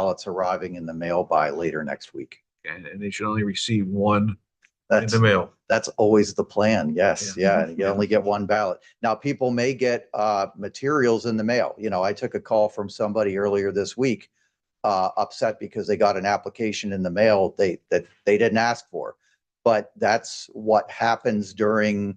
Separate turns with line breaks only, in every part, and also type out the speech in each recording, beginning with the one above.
ballots arriving in the mail by later next week.
and, and they should only receive one in
That's,
the mail.
that's always the plan. Yes,
Yeah.
yeah. You only get one ballot. Now, people may get uh, materials in the mail. You know, I took a call from somebody earlier this week uh, upset because they got an application in the mail they, that they didn't ask for. But that's what happens during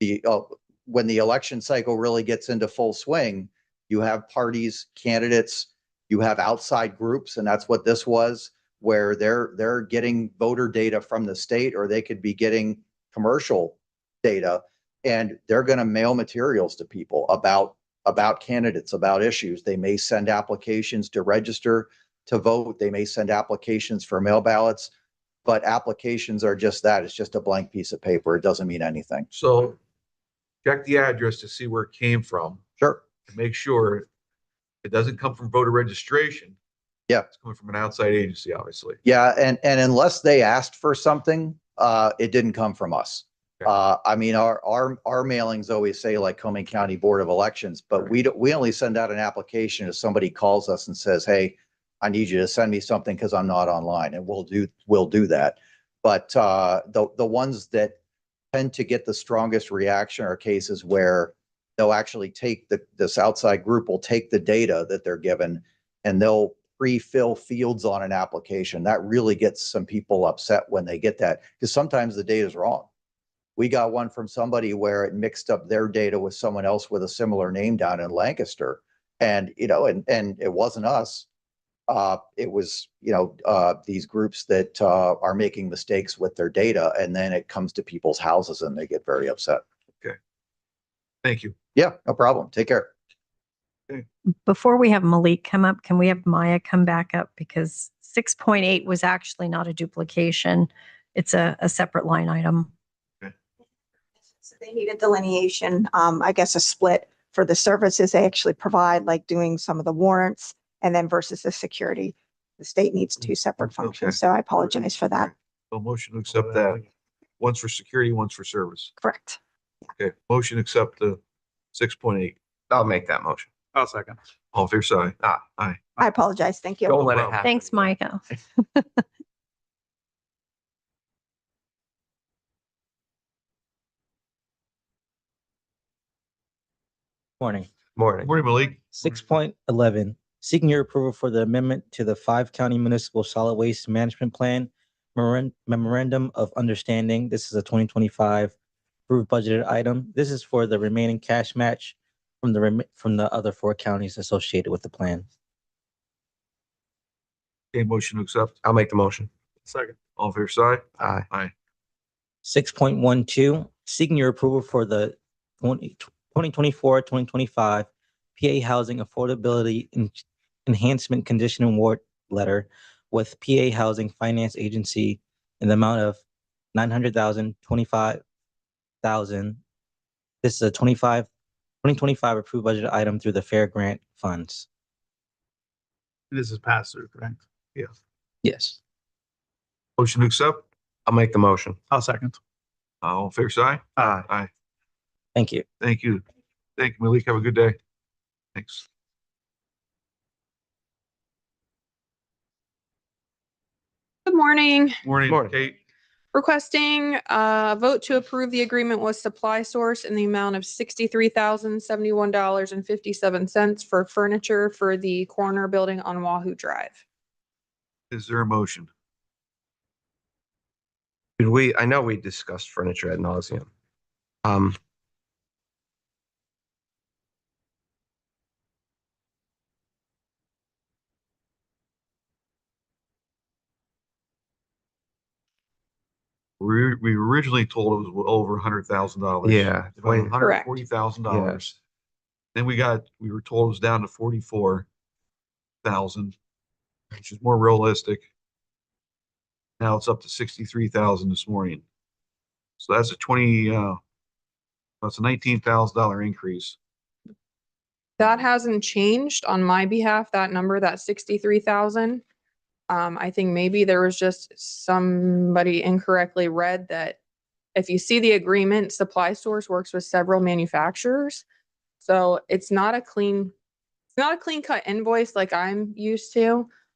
the, uh, when the election cycle really gets into full swing. You have parties, candidates, you have outside groups, and that's what this was where they're, they're getting voter data from the state or they could be getting commercial data. And they're going to mail materials to people about, about candidates, about issues. They may send applications to register to vote. They may send applications for mail ballots. But applications are just that. It's just a blank piece of paper. It doesn't mean anything.
So check the address to see where it came from
Sure.
and make sure it doesn't come from voter registration.
Yeah.
It's coming from an outside agency, obviously.
Yeah, and, and unless they asked for something, uh, it didn't come from us.
Okay.
Uh, I mean, our, our, our mailings always say like Coming County Board of Elections, but we don't, we only send out an application if somebody calls us and says, hey, I need you to send me something because I'm not online, and we'll do, we'll do that. But, uh, the, the ones that tend to get the strongest reaction are cases where they'll actually take the, this outside group will take the data that they're given and they'll pre-fill fields on an application. That really gets some people upset when they get that because sometimes the data is wrong. We got one from somebody where it mixed up their data with someone else with a similar name down in Lancaster. And, you know, and, and it wasn't us. Uh, it was, you know, uh, these groups that, uh, are making mistakes with their data and then it comes to people's houses and they get very upset.
Thank you.
Yeah, no problem. Take care.
before we have Malik come up, can we have Maya come back up? Because six point eight was actually not a duplication. It's a, a separate line item.
So they needed delineation, um, I guess a split for the services they actually provide, like doing some of the warrants and then versus the security. The state needs two separate
Okay.
functions, so I apologize for that.
So motion to accept that. One's for security, one's for service.
Correct.
Okay, motion to accept the six point eight.
I'll make that motion. I'll second.
All fair side.
Ah.
Aye.
I apologize. Thank you.
Don't let it
Wow.
happen.
Thanks, Micah.
Morning.
Morning.
Morning, Malik.
Six point eleven, seeking your approval for the amendment to the five county municipal solid waste management plan Memoran- memorandum of understanding. This is a twenty twenty-five approved budgeted item. This is for the remaining cash match from the rem- from the other four counties associated with the plan.
Okay, motion to accept.
I'll make the motion.
Second. All fair side.
Aye.
Aye.
Six point one two, seeking your approval for the 20 2024-2025 PA Housing Affordability En- Enhancement Condition Award Letter with PA Housing Finance Agency in the amount of nine hundred thousand, twenty-five thousand. This is a 25 2025 approved budget item through the Fair Grant Funds.
This is pass through, correct?
Yes.
Motion to accept.
I'll make the motion.
I'll second.
All fair side.
Aye.
Aye.
Thank you.
Thank you. Thank you, Malik. Have a good day. Thanks.
Good morning.
Morning,
Morning.
Kate.
Requesting uh, a vote to approve the agreement with Supply Source in the amount of sixty-three thousand seventy-one dollars and fifty-seven cents for furniture for the corner building on Wahoo Drive.
Is there a motion?
Did we, I know we discussed furniture ad nauseum. Um.
We, we originally told it was over a hundred thousand dollars.
Yeah.
About hundred
Correct.
forty thousand dollars. Then we got, we were told it was down to forty-four thousand, which is more realistic. Now it's up to sixty-three thousand this morning. So that's a twenty, uh, that's a nineteen thousand dollar increase.
That hasn't changed on my behalf, that number, that sixty-three thousand. Um, I think maybe there was just somebody incorrectly read that if you see the agreement, Supply Source works with several manufacturers. So it's not a clean, it's not a clean cut invoice like I'm used to.